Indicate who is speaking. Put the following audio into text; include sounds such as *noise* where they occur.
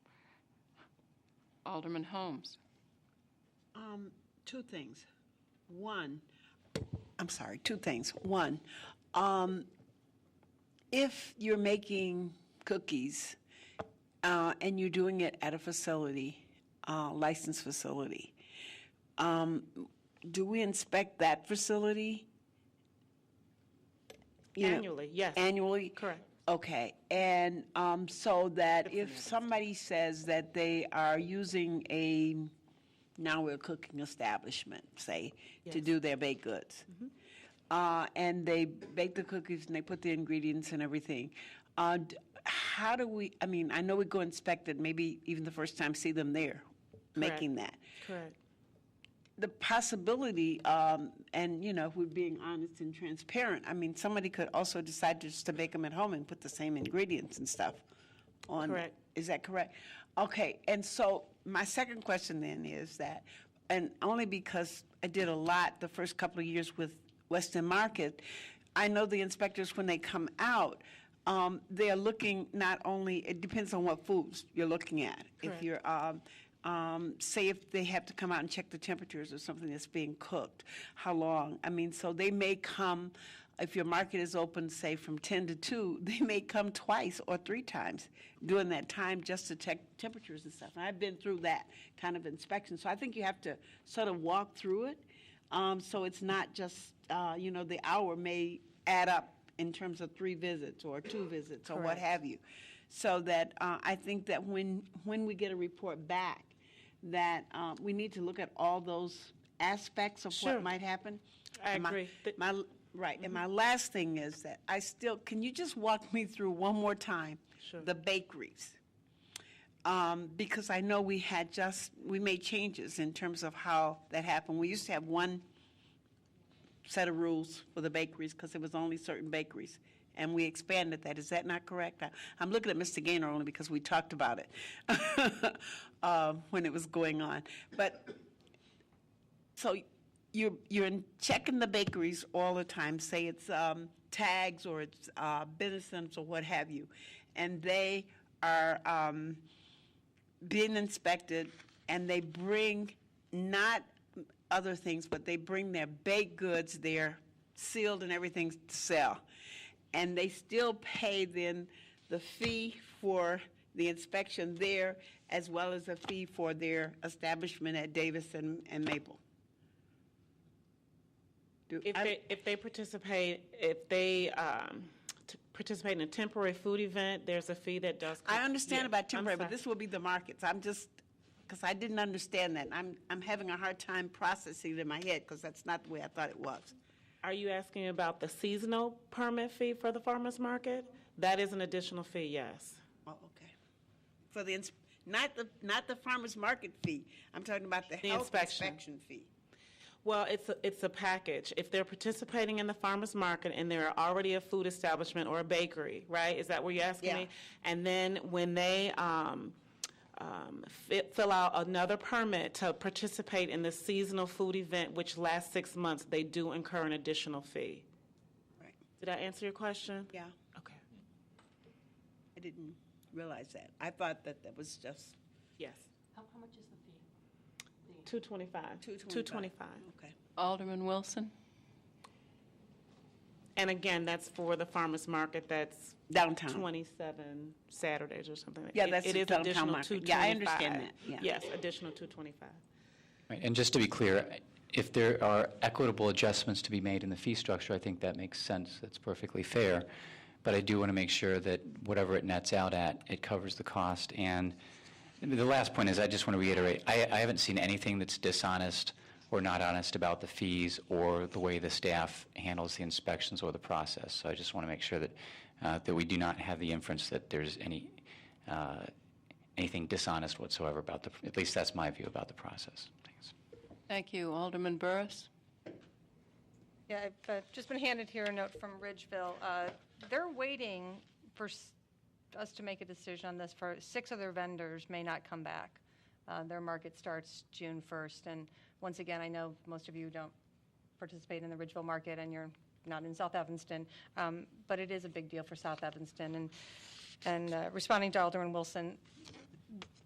Speaker 1: Alderman Holmes.
Speaker 2: Um, two things. One, I'm sorry, two things. One, um, if you're making cookies, uh, and you're doing it at a facility, uh, licensed facility, um, do we inspect that facility? You know,
Speaker 3: Annually, yes.
Speaker 2: Annually?
Speaker 3: Correct.
Speaker 2: Okay, and um, so that if somebody says that they are using a, now we're cooking establishment, say, to
Speaker 3: Yes. Mm-hmm.
Speaker 2: do their baked goods, uh, and they bake the cookies and they put the ingredients and everything, uh, d- how do we, I mean, I know we go inspect it, maybe even the first time see them there making that
Speaker 3: Correct.
Speaker 2: the possibility, um, and you know, if we're being honest and transparent, I mean, somebody could also decide just to bake them at home and put the same ingredients and stuff on.
Speaker 3: Correct.
Speaker 2: Is that correct? Okay, and so my second question then is that, and only because I did a lot the first couple of years with Weston Market, I know the inspectors, when they come out, um, they are looking not only, it depends on what foods you're looking at. If
Speaker 3: Correct.
Speaker 2: you're um, um, say if they have to come out and check the temperatures of something that's being cooked, how long? I mean, so they may come, if your market is open, say from 10 to 2, *laughs* they may come twice or three times during that time just to check temperatures and stuff. And I've been through that kind of inspection. So I think you have to sort of walk through it. Um, so it's not just, uh, you know, the hour may add up in terms of three visits or two visits or what
Speaker 3: Correct.
Speaker 2: have you. So that uh, I think that when when we get a report back, that um, we need to look at all those aspects of
Speaker 3: Sure.
Speaker 2: what might happen.
Speaker 3: I
Speaker 2: And my-
Speaker 3: agree. Th-
Speaker 2: My, right, and my last thing is that I still, can you just walk me through one more time?
Speaker 3: Sure.
Speaker 2: The bakeries um, because I know we had just, we made changes in terms of how that happened. We used to have one set of rules for the bakeries because it was only certain bakeries, and we expanded that. Is that not correct? I- I'm looking at Mr. Gaynor only because we talked about *laughs* it um, when it was going on. But, so you're, you're in- checking the bakeries all the time, say it's um, tags or it's uh, Bennison's or what have you, and they are, um, being inspected, and they bring not other things, but they bring their baked goods, they're sealed and everything to sell. And they still pay then the fee for the inspection there, as well as a fee for their establishment at Davis and, and Maple. Do-
Speaker 3: If
Speaker 2: I-
Speaker 3: they, if they participate, if they um, t- participate in a temporary food event, there's a fee that does.
Speaker 2: I understand
Speaker 3: Yeah,
Speaker 2: about
Speaker 3: I'm
Speaker 2: temporary, but
Speaker 3: sorry.
Speaker 2: this will be the markets. I'm just, because I didn't understand that. I'm, I'm having a hard time processing it in my head because that's not the way I thought it was.
Speaker 3: Are you asking about the seasonal permit fee for the farmer's market? That is an additional fee, yes.
Speaker 2: Oh, okay. For the, ins- not the, not the farmer's market fee. I'm talking about the
Speaker 3: The
Speaker 2: health
Speaker 3: inspection.
Speaker 2: inspection fee.
Speaker 3: Well, it's, a- it's a package. If they're participating in the farmer's market and they're already a food establishment or a bakery, right? Is that what you're asking
Speaker 2: Yeah.
Speaker 3: me? And then when they um, um, fi- fill out another permit to participate in the seasonal food event, which lasts six months, they do incur an additional fee.
Speaker 2: Right.
Speaker 3: Did I answer your question?
Speaker 2: Yeah,
Speaker 3: Okay,
Speaker 2: I didn't realize that. I thought that that was just
Speaker 3: yes.
Speaker 4: How, how much is the fee?
Speaker 3: 225.
Speaker 2: two twenty-five.
Speaker 3: 225.
Speaker 2: Okay.
Speaker 1: Alderman Wilson.
Speaker 3: And again, that's for the farmer's market, that's
Speaker 2: Downtown.
Speaker 3: 27 Saturdays or something.
Speaker 2: Yeah,
Speaker 3: It-
Speaker 2: that's
Speaker 3: It
Speaker 2: the
Speaker 3: is
Speaker 2: downtown
Speaker 3: additional
Speaker 2: market. Yeah, I
Speaker 3: 225.
Speaker 2: understand that, yeah.
Speaker 3: Yes, additional 225.
Speaker 5: Right, And just to be clear, if there are equitable adjustments to be made in the fee structure, I think that makes sense, that's perfectly fair. But I do want to make sure that whatever it nets out at, it covers the cost. And the last point is, I just want to reiterate, I, I haven't seen anything that's dishonest or not honest about the fees or the way the staff handles the inspections or the process. So I just want to make sure that, uh, that we do not have the inference that there's any, uh, anything dishonest whatsoever about the, at least that's my view about the process. Thanks.
Speaker 1: Thank you. Alderman Burris.
Speaker 6: Yeah, I've uh, just been handed here a note from Ridgeville. Uh, They're waiting for s- us to make a decision on this, for, six other vendors may not come back. Uh, Their market starts June 1st, and once again, I know most of you don't participate in the Ridgeville market, and you're not in South Evanston, um, but it is a big deal for South Evanston. And, and uh, responding to Alderman Wilson,